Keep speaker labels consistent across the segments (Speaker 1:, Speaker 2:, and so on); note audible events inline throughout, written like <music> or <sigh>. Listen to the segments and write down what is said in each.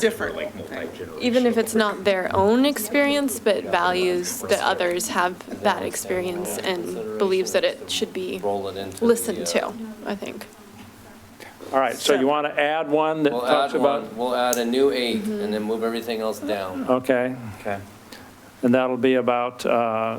Speaker 1: differently. multi-generational.
Speaker 2: even if it's not their own experience, but values that others have that experience and believes that it should be
Speaker 3: Roll it into the,
Speaker 2: listened
Speaker 3: uh,
Speaker 2: to, I think.
Speaker 4: All right, so you want to add one that
Speaker 3: We'll add
Speaker 4: talks about,
Speaker 3: one, we'll add a new eight
Speaker 2: Mm-hmm.
Speaker 3: and then move everything else down.
Speaker 4: okay,
Speaker 5: Okay.
Speaker 4: and that'll be about uh,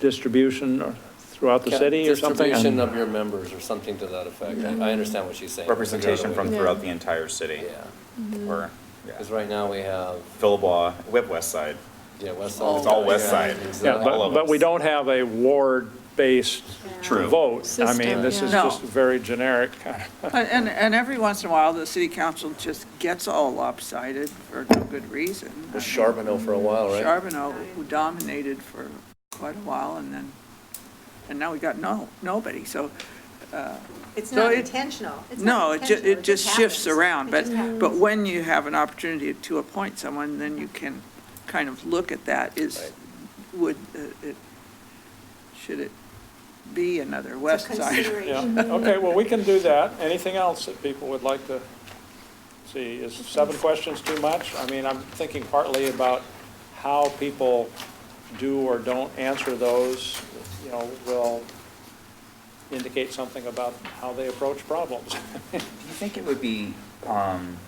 Speaker 4: distribution or- throughout the city or something?
Speaker 3: Distribution of your members or something to that effect. I understand what she's saying.
Speaker 5: Representation from
Speaker 2: Yeah.
Speaker 5: throughout the entire city.
Speaker 3: Yeah,
Speaker 5: Or, Mm-hmm. yeah.
Speaker 3: because right now we have,
Speaker 5: Philbaugh, we have West Side.
Speaker 3: yeah, West Side.
Speaker 5: It's all West
Speaker 3: Yeah,
Speaker 5: Side.
Speaker 4: Yeah,
Speaker 3: exactly.
Speaker 5: all
Speaker 4: but,
Speaker 5: of
Speaker 4: but we
Speaker 5: us.
Speaker 4: don't have a ward-based
Speaker 5: True.
Speaker 4: vote. I mean,
Speaker 2: System,
Speaker 4: this is
Speaker 6: yeah.
Speaker 4: just very generic kind of.
Speaker 6: And, and- and every once in a while, the city council just gets all lopsided for no good reason. Uh,
Speaker 3: It was Charbonneau for a while, right?
Speaker 6: Charbonneau, who dominated for quite a while, and then, and now we got no, nobody, so,
Speaker 7: It's
Speaker 6: So
Speaker 7: not
Speaker 6: it-
Speaker 7: intentional. It's not
Speaker 6: no, it ju,
Speaker 7: intentional.
Speaker 6: it just shifts
Speaker 7: happens.
Speaker 6: around,
Speaker 7: It
Speaker 6: but,
Speaker 7: just happens.
Speaker 6: but when you have an opportunity to appoint someone, then you can kind of look at that, is, would, uh, it, should it be another
Speaker 7: It's
Speaker 6: west
Speaker 7: a
Speaker 6: side?
Speaker 4: Yeah,
Speaker 7: consideration.
Speaker 4: okay, well, we can do that. Anything else that people would like to see? Is seven questions too much? I mean, I'm thinking partly about how people do or don't answer those, you know, will indicate something about how they approach problems. <laughs>
Speaker 5: Do you think it would be um,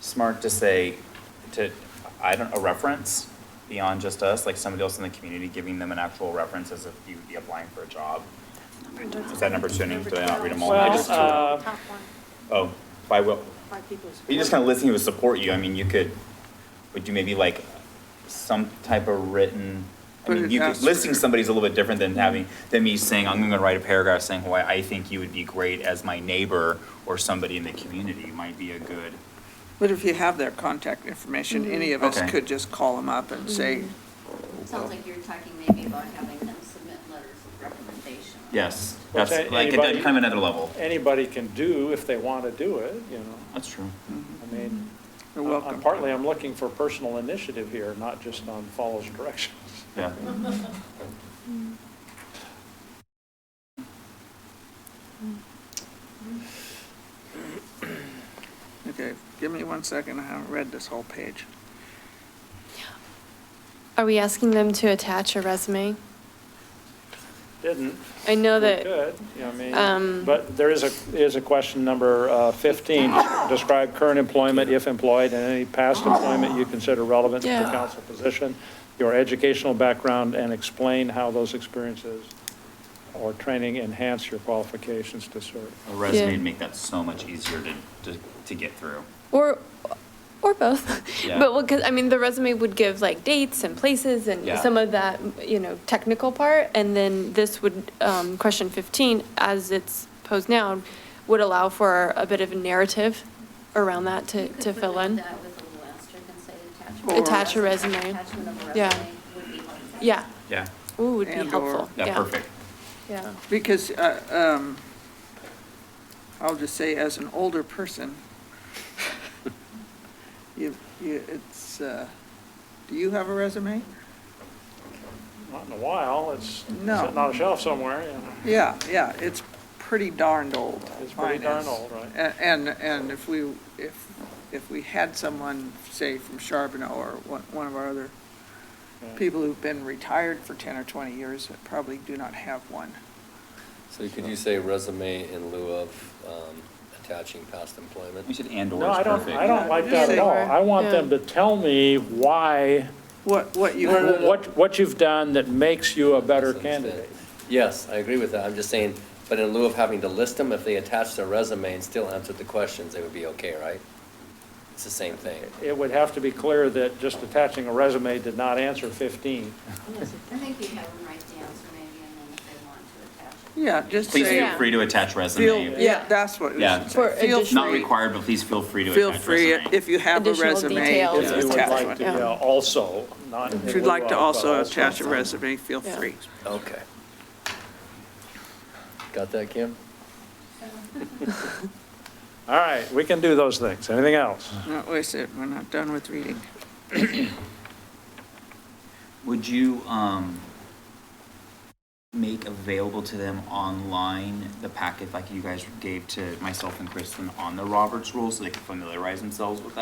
Speaker 5: smart to say, to, I don't, a reference beyond just us, like somebody else in the community giving them an actual reference as if you would be applying for a job? Is that number two? Did I not read them all? I
Speaker 4: Well,
Speaker 5: just-
Speaker 4: uh,
Speaker 7: Top one,
Speaker 5: Oh, by what,
Speaker 7: by people's-
Speaker 5: you just kind of listening would support you. I mean, you could, would you maybe like some type of written, I
Speaker 6: Put
Speaker 5: mean,
Speaker 6: it
Speaker 5: you could,
Speaker 6: as-
Speaker 5: listing somebody's a little bit different than having, than me saying, I'm gonna write a paragraph saying why I think you would be great as my neighbor or somebody in the community might be a good.
Speaker 6: <laughs> But if you have their contact information,
Speaker 7: Mm-hmm.
Speaker 6: any of us
Speaker 5: Okay.
Speaker 6: could just call them up and say,
Speaker 8: Sounds like you're talking maybe about having them submit letters of recommendation.
Speaker 5: Yes,
Speaker 4: Well,
Speaker 5: that's
Speaker 4: say
Speaker 5: like, a-
Speaker 4: anybody-
Speaker 5: kind of another level.
Speaker 4: Anybody can do if they want to do it, you know,
Speaker 5: That's true.
Speaker 4: I mean,
Speaker 6: you're welcome.
Speaker 4: I'm- Uh, partly I'm looking for personal initiative here, not just on follows directions.
Speaker 5: Yeah.
Speaker 6: Okay, give me one second, I haven't read this whole page.
Speaker 2: Are we asking them to attach a resume?
Speaker 4: Didn't,
Speaker 2: I know
Speaker 4: We
Speaker 2: that,
Speaker 4: could, you know, I mean,
Speaker 2: Um,
Speaker 4: but there is a, is a question number uh, 15, describe current employment, if employed, and any past employment you consider relevant to the
Speaker 2: Yeah.
Speaker 4: council position, your educational background, and explain how those experiences or training enhance your qualifications to serve.
Speaker 5: A resume
Speaker 2: Yeah.
Speaker 5: would make that so much easier to, to, to get through.
Speaker 2: or, or both.
Speaker 5: Yeah.
Speaker 2: But, because, I mean, the resume would give like dates and places and
Speaker 5: Yeah.
Speaker 2: some of that, you know, technical part. And then this would, um, question 15, as it's posed now, would allow for a bit of a narrative around that to,
Speaker 8: You could
Speaker 2: to fill
Speaker 8: put
Speaker 2: in.
Speaker 8: that with a little asterisk and say
Speaker 6: Or-
Speaker 8: attachment.
Speaker 2: Attach a resume.
Speaker 8: Attachment of a
Speaker 2: Yeah.
Speaker 8: resume would be helpful.
Speaker 2: Yeah,
Speaker 5: Yeah,
Speaker 2: ooh, would be
Speaker 6: And/or-
Speaker 2: helpful.
Speaker 5: yeah, perfect.
Speaker 2: Yeah.
Speaker 6: Because, uh, um, I'll just say as an older
Speaker 4: <laughs>
Speaker 6: person, you, you, it's, uh, do you have a resume?
Speaker 4: Not in a while, it's sitting
Speaker 6: No.
Speaker 4: on a shelf somewhere, you know.
Speaker 6: Yeah, yeah, it's pretty darned old.
Speaker 4: It's pretty
Speaker 6: mine
Speaker 4: darn
Speaker 6: is.
Speaker 4: old, right.
Speaker 6: A- And, and if we, if, if we had someone, say, from Charbonneau or one, one of our other
Speaker 4: Yeah.
Speaker 6: people who've been retired for ten or twenty years, that probably do not have one.
Speaker 3: So could you say resume in lieu of um, attaching past
Speaker 5: We
Speaker 3: employment?
Speaker 5: should and/or
Speaker 4: No, I
Speaker 5: is
Speaker 4: don't,
Speaker 5: perfect.
Speaker 4: I don't like that at all. I want them to tell me why,
Speaker 6: What, what you.
Speaker 4: what, what you've done that makes you a better candidate.
Speaker 3: Yes, I agree with that. I'm just saying, but in lieu of having to list them, if they attached their resume and still answered the questions, they would be okay, right? It's the same thing.
Speaker 4: It would have to be clear that just attaching a resume did not answer 15.
Speaker 8: I think you have them write the answer maybe, and then if they want to attach it.
Speaker 6: Yeah, just
Speaker 5: Please
Speaker 6: say,
Speaker 5: feel
Speaker 2: Yeah.
Speaker 5: free to attach
Speaker 6: feel,
Speaker 5: resume.
Speaker 6: yeah, that's what we
Speaker 5: Yeah.
Speaker 6: should
Speaker 2: For
Speaker 6: say. Feel
Speaker 2: additional-
Speaker 5: Not
Speaker 6: free-
Speaker 5: required, but please feel free to
Speaker 6: Feel
Speaker 5: attach
Speaker 6: free,
Speaker 5: resume.
Speaker 6: if you have a
Speaker 2: Additional
Speaker 6: resume,
Speaker 2: details.
Speaker 4: If
Speaker 6: just
Speaker 4: you would
Speaker 6: attach
Speaker 4: like to,
Speaker 6: one.
Speaker 2: Yeah.
Speaker 4: yeah, also, not.
Speaker 6: If you'd like to also
Speaker 4: Well,
Speaker 6: attach a resume, feel
Speaker 2: Yeah.
Speaker 6: free.
Speaker 3: Okay. Got that, Kim?
Speaker 4: All right, we can do those things. Anything else?
Speaker 6: No, wait a second, we're not done with reading.
Speaker 5: Would you, um, make available to them online the packet like you guys gave to myself and Kristen on the Roberts rules so they can familiarize themselves with that?